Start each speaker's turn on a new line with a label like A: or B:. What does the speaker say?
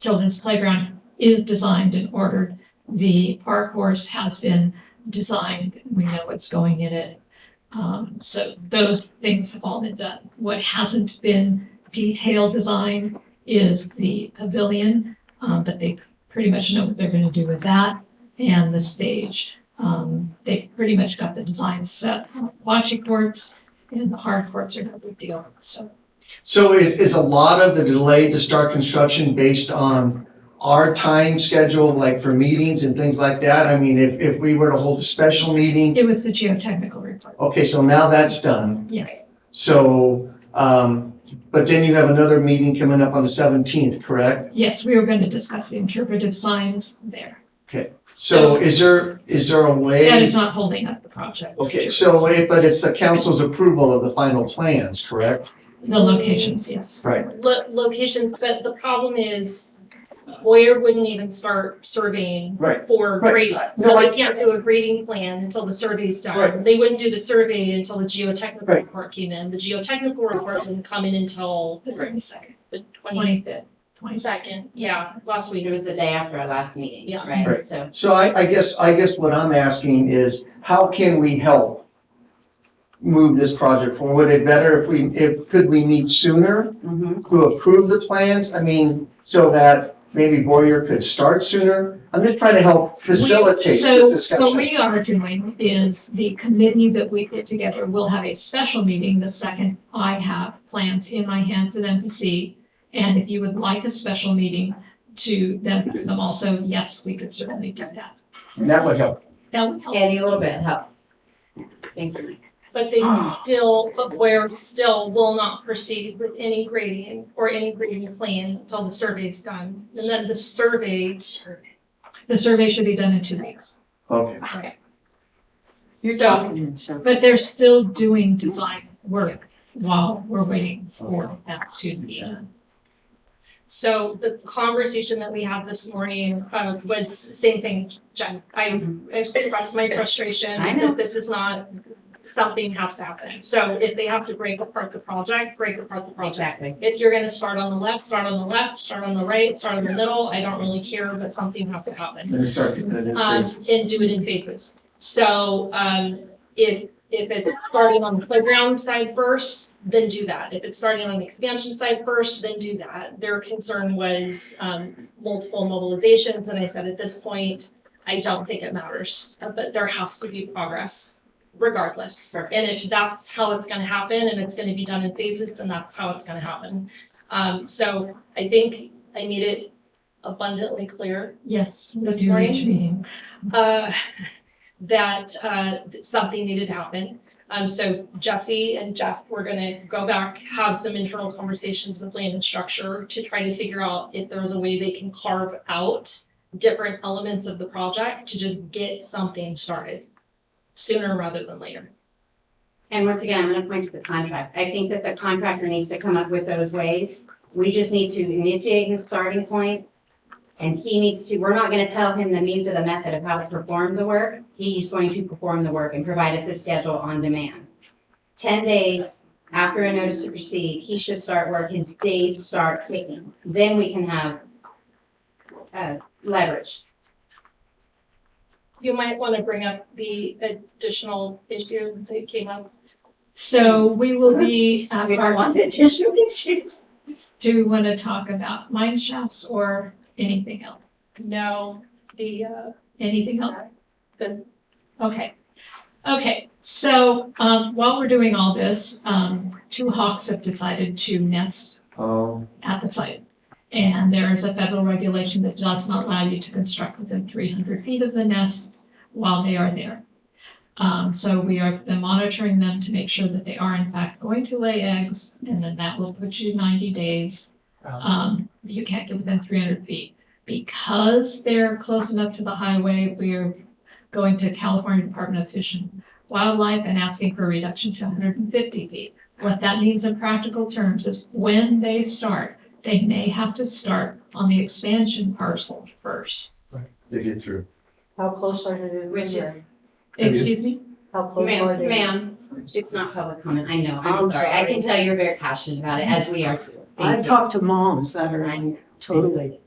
A: children's playground is designed and ordered. The park horse has been designed. We know what's going in it. Um, so those things have all been done. What hasn't been detailed design is the pavilion, um, but they pretty much know what they're gonna do with that and the stage. Um, they pretty much got the design set. Watching courts and the hard courts are no big deal, so.
B: So is, is a lot of the delay to start construction based on our time schedule, like for meetings and things like that? I mean, if, if we were to hold a special meeting,
A: It was the geotechnical report,
B: okay, so now that's done.
A: yes.
B: So, um, but then you have another meeting coming up on the seventeenth, correct?
A: Yes, we were going to discuss the interpretive signs there.
B: So is there, is there a way?
A: That is not holding up the project.
B: Okay, so, it- but it's the council's approval of the final plans, correct?
A: The locations, yes.
B: Right.
C: lo- locations, but the problem is Boyer wouldn't even start surveying
B: Right.
C: for
B: Right.
C: grading.
B: I- no,
C: So
B: I-
C: they can't do a grading plan until the survey's done.
B: Right.
C: They wouldn't do the survey until the geotechnical
B: Right.
C: report came in. The geotechnical report didn't come in until
A: The twenty-second,
C: the twenty-second,
A: twenty-fifth, twenty-second.
C: yeah, last week.
D: It was the day after our last meeting,
C: Yeah.
D: right?
B: Right.
D: So
B: So I, I guess, I guess what I'm asking is, how can we help move this project forward? Would it better if we, if, could we meet sooner
D: mhm.
B: to approve the plans? I mean, so that maybe Boyer could start sooner? I'm just trying to help facilitate this
A: So what
B: discussion.
A: we are doing is the committee that we put together will have a special meeting the second I have plans in my hand for them to see. And if you would like a special meeting to them, them also, yes, we could certainly do that.
B: And that would help.
A: That would help.
D: Any little bit helps. Thank you.
C: But they still, but Boyer still will not proceed with any grading or any grading plan until the survey's done. And then the survey
A: The survey should be done in two weeks.
B: Okay.
C: You're
A: But they're still doing design work while we're waiting for that to be. done.
C: So the conversation that we had this morning uh, was same thing, Jen. I I expressed my frustration
D: I know.
C: that this is not, something has to happen. So if they have to break apart the project, break apart the project.
D: Exactly.
C: If you're gonna start on the left, start on the left, start on the right, start in the middle, I don't really care, but something has to happen
B: Let me start getting it in
C: um,
B: place.
C: and do it in phases. So, um, if, if it's starting on the playground side first, then do that. If it's starting on the expansion side first, then do that. Their concern was, um, multiple mobilizations, and I said, at this point, I don't think it matters, uh, but there has to be progress regardless.
D: Correct.
C: And if that's how it's gonna happen and it's gonna be done in phases, then that's how it's gonna happen. Um, so I think I made it abundantly clear
A: Yes, we
C: This
A: do
C: morning?
A: each meeting.
C: uh, that uh, something needed to happen. Um, So Jesse and Jeff, we're going to go back, have some internal conversations with land and structure to try to figure out if there's a way they can carve out different elements of the project to just get something started sooner rather than later.
D: And once again, I'm gonna point to the contract. I think that the contractor needs to come up with those ways. We just need to initiate the starting point, And he needs to, we're not gonna tell him the means or the method of how to perform the work. He's going to perform the work and provide us a schedule on demand. Ten days after a notice to proceed, he should start work, his days start ticking. Then we can have uh, leverage.
C: You might want to bring up the additional issue that came up.
A: So we will be, at
D: We don't
A: our-
D: want the tissue issues.
A: do you want to talk about mine shafts or anything else?
C: No, the, uh,
A: Anything else?
C: the
A: Okay. Okay, so um, while we're doing all this, um, two hawks have decided to nest
B: Um,
A: at the site. And there is a federal regulation that does not allow you to construct within three hundred feet of the nest while they are there. Um, so we are been monitoring them to make sure that they are in fact going to lay eggs, and then that will put you ninety days. Um, you can't get within three hundred feet. Because they're close enough to the highway, we are going to California Department of Fish and Wildlife and asking for a reduction to hundred and fifty feet. What that means in practical terms is when they start, they may have to start on the expansion parcel first.
B: to get through.
E: How close are they?
D: Which is-
B: Okay.
A: Excuse me?
E: How close are
D: Ma'am,
E: they?
D: ma'am, it's not public comment, I know, I'm
E: I'm
D: sorry, I can
E: sorry.
D: tell you're very passionate about it, as we are too.
E: I've
D: Thank you.
E: talked to moms that
D: I
E: are
D: know.
E: totally